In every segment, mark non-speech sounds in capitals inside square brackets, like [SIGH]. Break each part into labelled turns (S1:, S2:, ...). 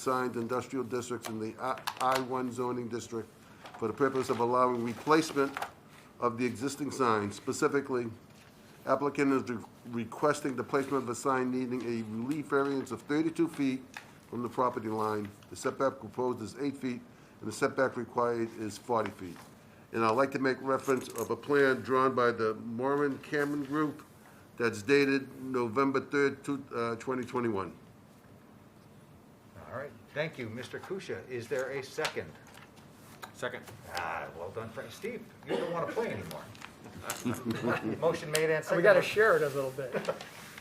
S1: assigned industrial districts in the I- I-1 zoning district for the purpose of allowing replacement of the existing sign. Specifically, applicant is re- requesting the placement of a sign needing a relief variance of 32 feet from the property line. The setback proposed is 8 feet, and the setback required is 40 feet. And I'd like to make reference of a plan drawn by the Moran Cameron Group that's dated November 3rd, two- uh, 2021.
S2: All right, thank you, Mr. Kusia. Is there a second?
S3: Second.
S2: Ah, well done, Frank. Steve, you don't want to play anymore. Motion made and seconded.
S4: We gotta share it a little bit.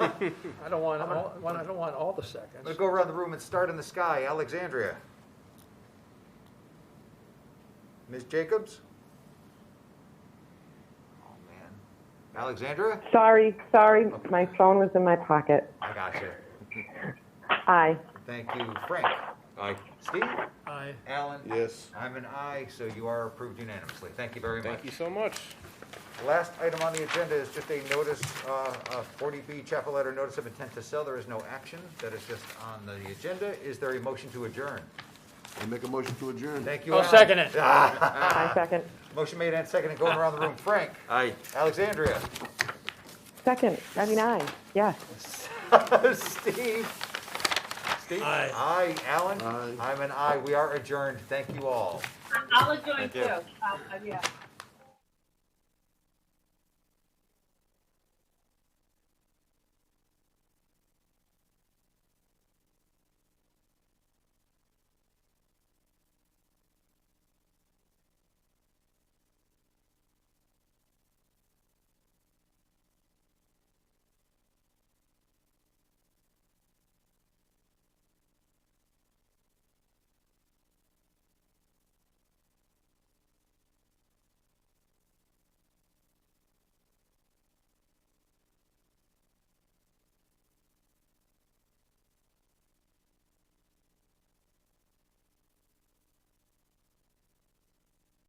S4: I don't want, all- I don't want all the
S2: Let's
S4: seconds.
S2: go around the room and start in the sky. Alexandria. Ms. Jacobs? Oh, man. Alexandria?
S5: Sorry, sorry, my phone was in my pocket.
S2: I got you.
S5: Aye.
S2: Thank you, Frank.
S3: Aye.
S2: Steve?
S4: I,
S2: Alan?
S1: Yes.
S2: I'm an aye, so you are approved unanimously. Thank you very much.
S3: Thank you so much.
S2: Last item on the agenda is just a notice, uh, a 40B chapel letter notice of intent to sell. There is no action. That is just on the agenda. Is there a motion to adjourn?
S1: I make a motion to adjourn.
S2: Thank you,
S4: I'll
S2: Alan.
S4: Oh, second it.
S5: Aye, second.
S2: Motion made and seconded. Going around the room.
S3: [LAUGHS]
S2: Frank?
S3: Aye.
S2: Alexandria? [LAUGHS]
S5: Second, I mean, aye, yes.
S2: Steve? Steve?
S4: Aye.
S2: Aye. Alan?
S1: Aye.
S2: I'm an aye. We are adjourned. Thank you all.
S6: I'll adjourn
S3: you.
S6: too. Um, yeah.